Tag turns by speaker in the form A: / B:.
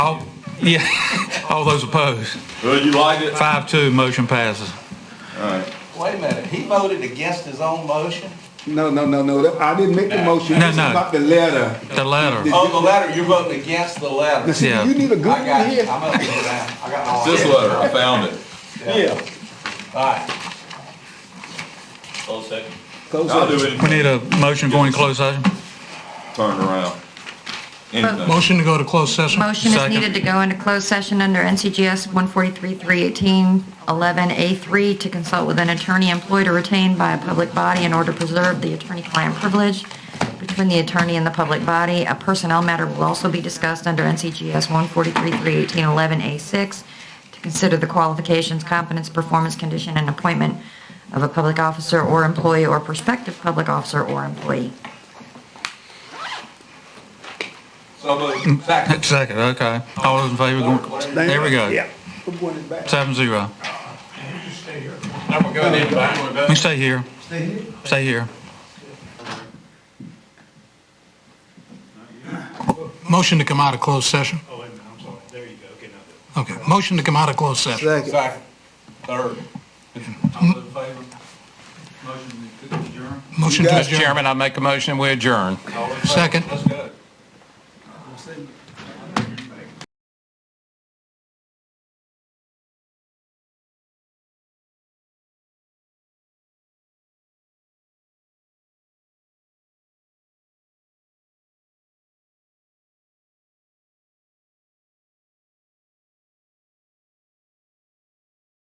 A: All, yeah, all those opposed.
B: Well, you liked it?
A: Five, two, motion passes.
C: Wait a minute, he voted against his own motion?
D: No, no, no, no, that- I didn't make the motion,
A: No,
D: this is
A: no.
D: about the letter.
A: The letter,
C: Oh, the letter, you're voting against the letter.
D: See,
A: Yeah.
D: you need a good
C: I got
D: one
C: it,
D: here.
C: I'm up to that, I got all
B: This
C: that.
B: letter, I found it.
D: Yeah.
C: All right,
E: Close second.
D: Close
B: I'll do
D: up.
B: it.
A: we need a motion going to closed session.
B: Turn around. Anything.
A: Motion to go to closed session.
F: Motion is
A: Second.
F: needed to go into closed session under NCGS 143-318-11A3 to consult with an attorney employed or retained by a public body in order to preserve the attorney-client privilege between the attorney and the public body. A personnel matter will also be discussed under NCGS 143-318-11A6 to consider the qualifications, competence, performance, condition, and appointment of a public officer or employee or prospective public officer or employee.
C: so moved, second.
A: Second, okay. All those in favor, going- there we go.
D: Yeah. We're going it back.
A: Seven, zero.
C: I'm gonna go ahead and back.
A: We stay here. Stay here? Stay here.
G: Motion to come out of closed session.
E: Oh, wait a minute, I'm sorry. There you go. Okay, now.
G: Okay, motion to come out of closed session.
D: Second.
C: Second, third. All those in favor? Motion to adjourn?
G: Motion to
D: You got it.
G: adjourn.
H: Chairman, I make a motion, we adjourn.
C: All in favor?
G: Second.
C: Let's go.